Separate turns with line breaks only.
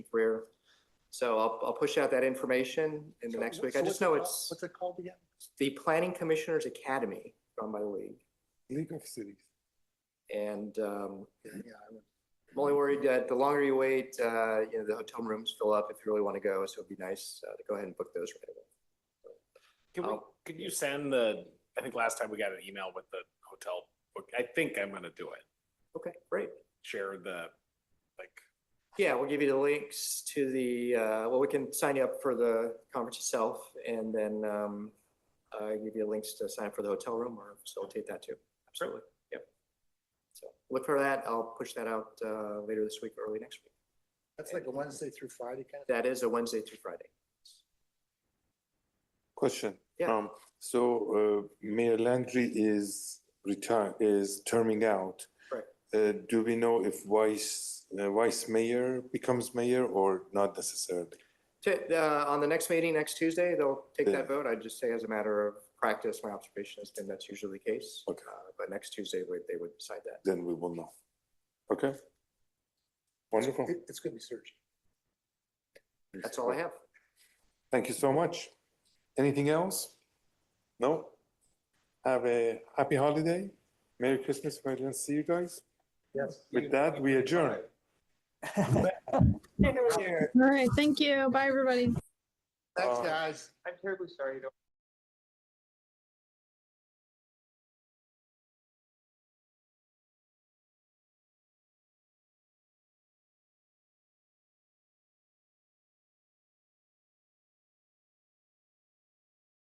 career. So I'll, I'll push out that information in the
So
next
what-
week.
so
I
what's
just
it
know
called-
it's
What's it called again?
the Planning Commissioners Academy run by the league.
League of Cities.
And um,
Yeah, yeah, I would-
I'm only worried that the longer you wait, uh, you know, the hotel rooms fill up if you really want to go. So it'd be nice uh, to go ahead and book those right away.
Oh, Can we,
I'll-
could you send the, I think last time we got an email with the hotel, book. I think I'm gonna do it.
Okay, great.
Share the, like,
Yeah, we'll give you the links to the, uh, well, we can sign you up for the conference itself and then um, uh, give you links to sign up for the hotel room or facilitate that too. Absolutely. Yep. So look for that. I'll push that out uh, later this week, early next week.
That's like a Wednesday through Friday kind of.
That is a Wednesday through Friday.
Question.
Yeah.
Um, So uh, Mayor Landry is retire, is terming out.
Right.
Uh, Do we know if vice, uh, vice mayor becomes mayor or not necessarily?
Ta- uh, On the next meeting, next Tuesday, they'll take
Yeah.
that vote. I just say as a matter of practice, my observation has been that's usually the case.
Okay.
Uh, But next Tuesday, we- they would decide that.
Then we will know. Okay? Wonderful.
It- It's gonna be surging.
That's all I have.
Thank you so much. Anything else? No? Have a happy holiday. Merry Christmas. if I don't see you guys.
Yes.
With that, we adjourn.
All right, thank you. Bye, everybody.
Thanks,
Uh,
guys.